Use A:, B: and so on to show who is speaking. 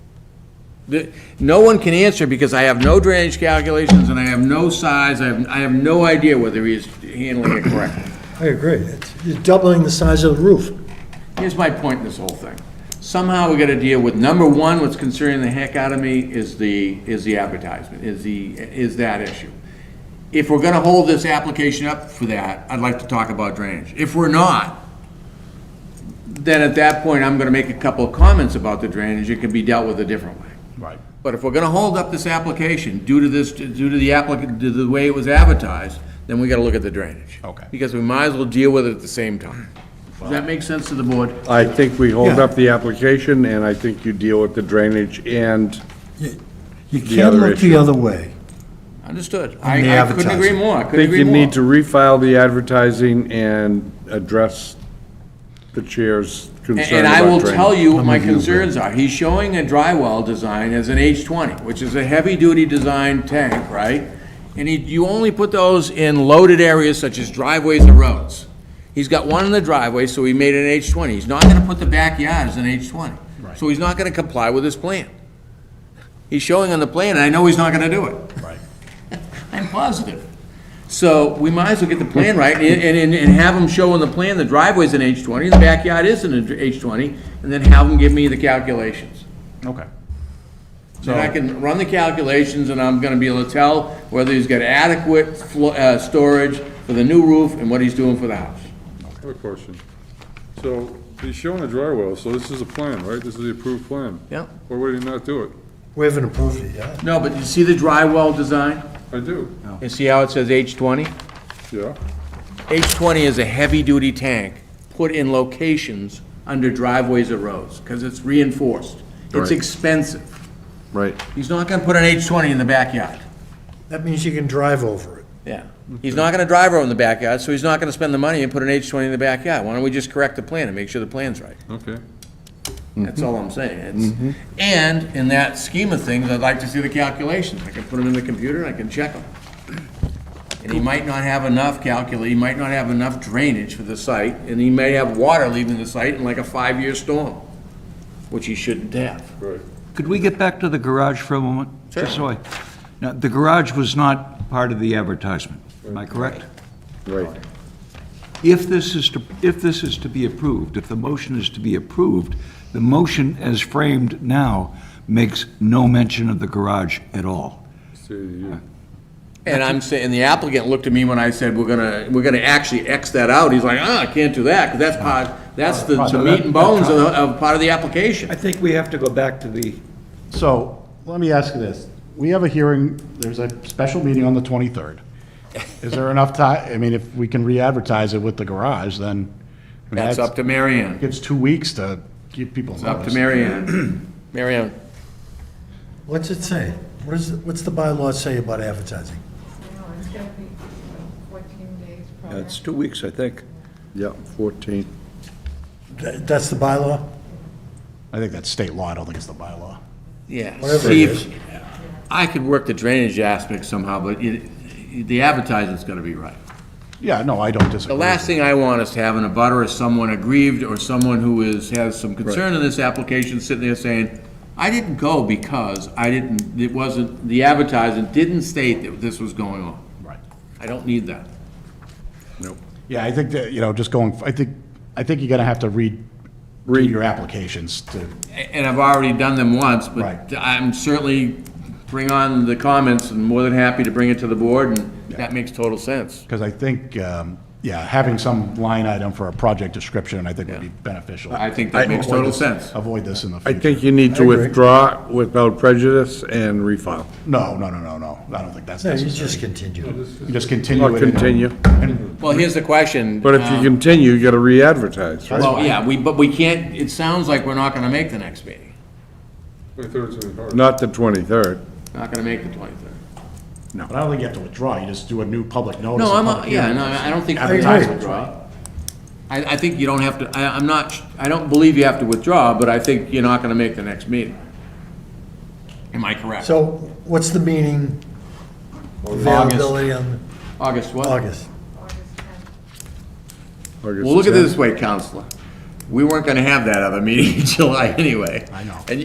A: the- no one can answer because I have no drainage calculations and I have no size, I have, I have no idea whether he is handling it correctly.
B: I agree. It's- You're doubling the size of the roof.
A: Here's my point in this whole thing. Somehow we gotta deal with, number one, what's concerning the heck out of me is the, is the advertisement, is the, is that issue. If we're gonna hold this application up for that, I'd like to talk about drainage. If we're not, then at that point, I'm gonna make a couple of comments about the drainage, it can be dealt with a different way.
C: Right.
A: But if we're gonna hold up this application due to this, due to the applicant, to the way it was advertised, then we gotta look at the drainage.
C: Okay.
A: Because we might as well deal with it at the same time. Does that make sense to the board?
D: I think we hold up the application, and I think you deal with the drainage and
B: You
D: The
B: can't
D: other
B: look the
D: issue.
B: other way.
A: Understood.
B: And the
A: I, I couldn't agree
B: advertising.
A: more. I
D: I
A: couldn't
D: think
A: agree
D: you
A: more.
D: need to refile the advertising and address the chair's concern
A: And and
D: about
A: I will
D: drainage.
A: tell you what my concerns are. He's showing a drywall design as an H20, which is a heavy-duty design tank, right? And he, you only put those in loaded areas such as driveways and roads. He's got one in the driveway, so he made it an H20. He's not gonna put the backyard as an H20. So he's not gonna comply with his plan. He's showing on the plan, and I know he's not gonna do it.
C: Right.
A: I'm positive. So we might as well get the plan right and, and, and have them show on the plan the driveway's in H twenty, the backyard is in H twenty, and then have them give me the calculations.
C: Okay.
A: Then I can run the calculations and I'm gonna be able to tell whether he's got adequate flo- uh, storage for the new roof and what he's doing for the house.
E: I have a question. So, he's showing a dry well, so this is a plan, right? This is the approved plan?
A: Yep.
E: Why would he not do it?
B: We haven't approved it yet.
A: No, but you see the drywall design?
E: I do,
A: And see how it says H twenty?
E: yeah.
A: H twenty is a heavy-duty tank put in locations under driveways or roads, because it's reinforced. It's
D: Right.
A: expensive.
D: Right.
A: He's not gonna put an H twenty in the backyard.
B: That means you can drive over it.
A: Yeah. He's not gonna drive her in the backyard, so he's not gonna spend the money and put an H twenty in the backyard. Why don't we just correct the plan and make sure the plan's right?
E: Okay.
A: That's all I'm saying. It's, and in that scheme of things, I'd like to see the calculations. I can put them in the computer and I can check them. And he might not have enough calcul, he might not have enough drainage for the site, and he may have water leaving the site in like a five-year storm, which he shouldn't have.
E: Right.
F: Could we get back to the garage for a moment? Just so I- Now, the garage was not part of the advertisement, am I correct?
D: Right.
F: If this is to, if this is to be approved, if the motion is to be approved, the motion as framed now makes no mention of the garage at all.
E: See, you,
A: And I'm saying, and the applicant looked at me when I said, we're gonna, we're gonna actually X that out. He's like, ah, I can't do that, because that's part, that's the the meat and bones of, the- of part of the application.
F: I think we have to go back to the,
G: So, let me ask you this. We have a hearing, there's a special meeting on the 23rd. Is there enough time, I mean, if we can re-advertise it with the garage, then. I mean,
A: That's up to Mary Ann.
G: Gives two weeks to give people
A: It's up to
G: notice.
A: Mary Ann. Mary Ann.
B: What's it say? What is, what's the bylaw say about advertising?
H: No, it's gonna be uh, fourteen days
F: uh,
H: probably.
F: it's two weeks, I think.
D: Yep, 14.
B: Tha- That's the bylaw?
G: I think that's state law, I don't think it's the bylaw.
A: Yeah.
B: Whatever it
A: see
B: is.
A: if I could work the drainage aspect somehow, but it, the advertising's gotta be right.
G: Yeah, no, I don't disagree.
A: The last thing I want is to have an abutter is someone aggrieved or someone who is, has some concern in this application sitting there saying, I didn't go because I didn't, it wasn't, the advertising didn't state that this was going on.
G: Right.
A: I don't need that.
G: Yeah, I think that, you know, just going, I think, I think you're gonna have to read, read your applications to,
A: A- And I've already done them once, but
G: Right.
A: I'm certainly, bring on the comments and more than happy to bring it to the board and that makes total sense.
G: because I think, um, yeah, having some line item for a project description, I think would be beneficial.
A: I think that makes
G: Avoid
A: total
G: this-
A: sense.
G: Avoid this in the
D: I
G: future.
D: think you need to withdraw without prejudice and refile.
G: No, no, no, no, no, I don't think that's
B: No, you just
G: necessary.
B: continue.
G: You just continue
D: Or
G: it. and-
D: continue.
A: Well, here's the question.
D: But if you
A: um,
D: continue, you gotta re-advertise, right?
A: Well, yeah, we, but we can't, it sounds like we're not gonna make the next meeting,
E: twenty-third's gonna be hard.
D: Not the 23rd.
A: not gonna make the twenty-third.
G: But I don't think you have to withdraw, you just do a new public notice.
A: No,
G: a
A: I'm,
G: public
A: a- yeah,
G: hearing.
A: no, I don't think.
G: Advertise
B: agree.
A: withdraw. I, I think you don't have to, I, I'm not, sh- I don't believe you have to withdraw, but I think you're not gonna make the next meeting. Am I correct?
B: So what's the meaning, availability on
A: August what?
B: August?
A: Well, look at it this way, Counselor. We weren't gonna have that other meeting in July anyway.
G: I know.
A: And